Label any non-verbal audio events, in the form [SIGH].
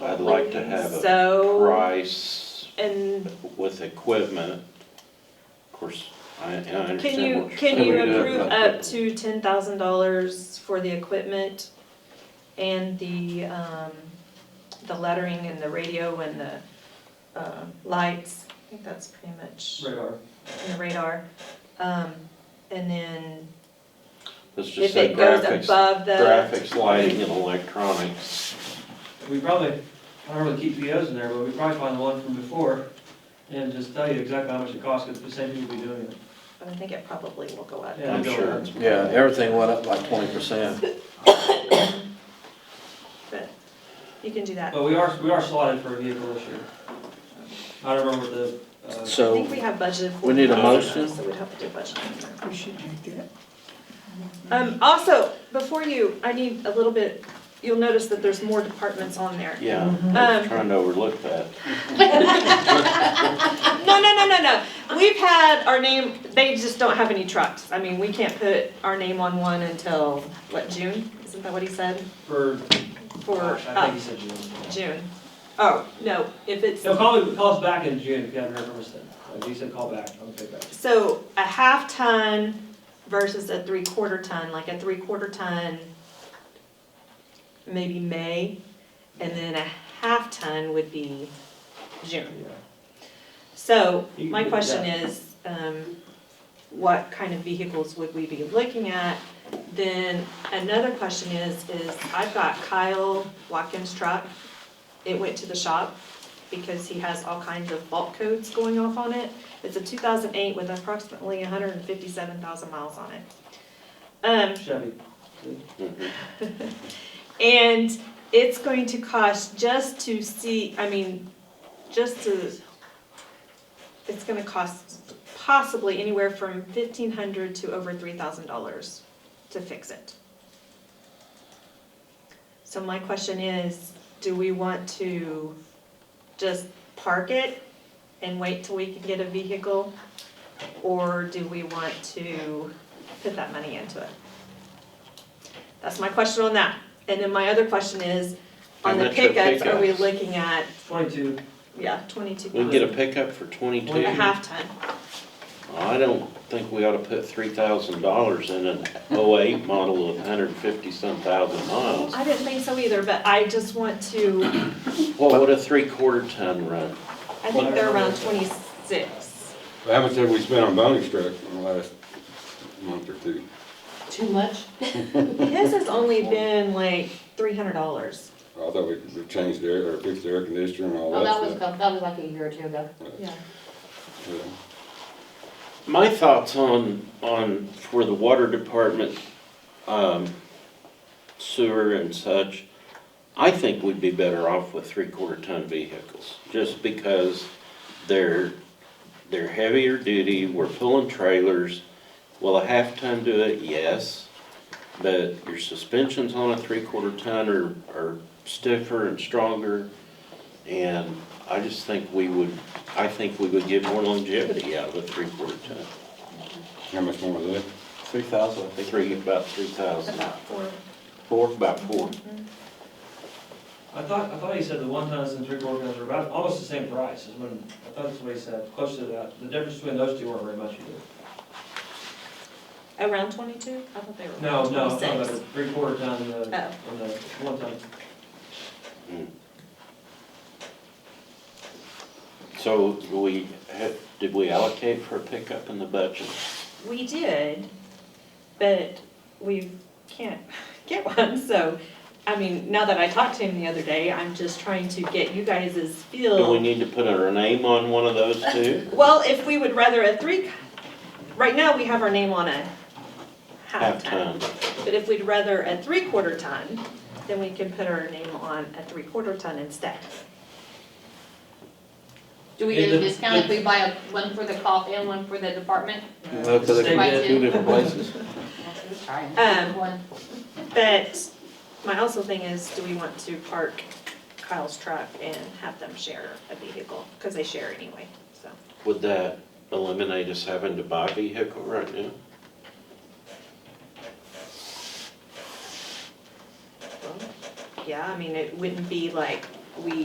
I'd like to have a So, price and with equipment. Of course, I, and I can understand you, what you're saying. can you Yeah. approve up to ten thousand dollars for the equipment and the, um, the lettering and the radio and the, uh, lights? I think that's pretty much, radar. and the radar. Um, and then Let's just if say it goes graphics, above the, graphics, lighting and electronics. We probably, I don't really keep POs in there, but we probably find the one from before and just tell you exactly how much it costs, because the same people be doing it. I think it probably will go up. Yeah, I'm go sure on. it's Yeah, everything went up like twenty percent. [LAUGHS] But you can do that. I But we are, we are slotted for a vehicle this year. I don't remember the, uh, So, think we have budgeted. We need a 40,000, motion? So we'd have to do a budget. We should do that. Um, also, before you, I need a little bit, you'll notice that there's more departments on there. Yeah, I Um, was trying to overlook that. No, no, no, no, no. We've had our name, they just don't have any trucks. I mean, we can't put our name on one until, what, June? Isn't that what he said? for, For, I think uh, you said June. June. Oh, no, if it's, He'll call, call us back in June if you haven't heard from us then. Like, He said call back, I'll take back. so a half ton versus a three quarter ton, like a three quarter ton, maybe May, and then a half ton would be June. Yeah. So, You my can do question that. is, um, what kind of vehicles would we be looking at? Then, another question is, is I've got Kyle Watkins' truck. It went to the shop because he has all kinds of fault codes going off on it. It's a two thousand eight with approximately hundred and fifty-seven thousand miles on it. Um, Chevy. Mhm. and it's going to cost just to see, I mean, just to, it's gonna cost possibly anywhere from fifteen hundred to over three thousand dollars to fix it. So my question is, do we want to just park it and wait till we can get a vehicle? Or do we want to put that money into it? That's my question on that. And then my other question is, on How the much are pickups, are we pickups? looking at, Twenty-two, yeah, twenty-two We can get a thousand, pickup for twenty-two? a half ton? I don't think we ought to put three thousand dollars in an oh-eight model of hundred and fifty-some thousand miles. I didn't think so either, but I just want to, What would a three-quarter ton run? I think they're around twenty-six. How much have we spent on bounty truck in the last month or two? Too much? His has only been like three hundred dollars. I thought we we changed the air, or fixed the air conditioner and all Oh, that was, that stuff. cou- that was like a year or two ago. Yeah. Yeah. My thoughts on, on, for the water department, um, sewer and such, I think we'd be better off with three-quarter ton vehicles, just because they're, they're heavier duty, we're pulling trailers. Will a half ton do it? Yes, but your suspensions on a three-quarter ton are, are stiffer and stronger. And I just think we would, I think we would get more longevity out of a three-quarter ton. How much more was that? three thousand, I They think, three, about three thousand. About four. Four, about four. I thought, I thought he said the one tons and three quarter tons are about, almost the same price as when, I thought that's what he said, close to that. The difference between those two weren't very much either. Around twenty-two? I thought they were No, around no, I'm twenty-six. talking about the three quarter ton and the, Oh. and the one ton. So do we, ha- did we allocate for a pickup in the budget? We did, but we can't [LAUGHS] get one, so, I mean, now that I talked to him the other day, I'm just trying to get you guys' feel. Do we need to put our name on one of those [LAUGHS] two? Well, if we would rather a three, right now we have our name on a half Half ton. ton. But if we'd rather a three quarter ton, then we can put our name on a three quarter ton instead. Do we get a discount if we buy a- one for the cop and one for the department? no, because Uh, they Stay come dead. from two different [LAUGHS] places. Um, One. But my also thing is, do we want to park Kyle's truck and have them share a vehicle? Because they share anyway, so. Would that eliminate us having to buy a vehicle right now? well, Yeah, I mean, it wouldn't be like we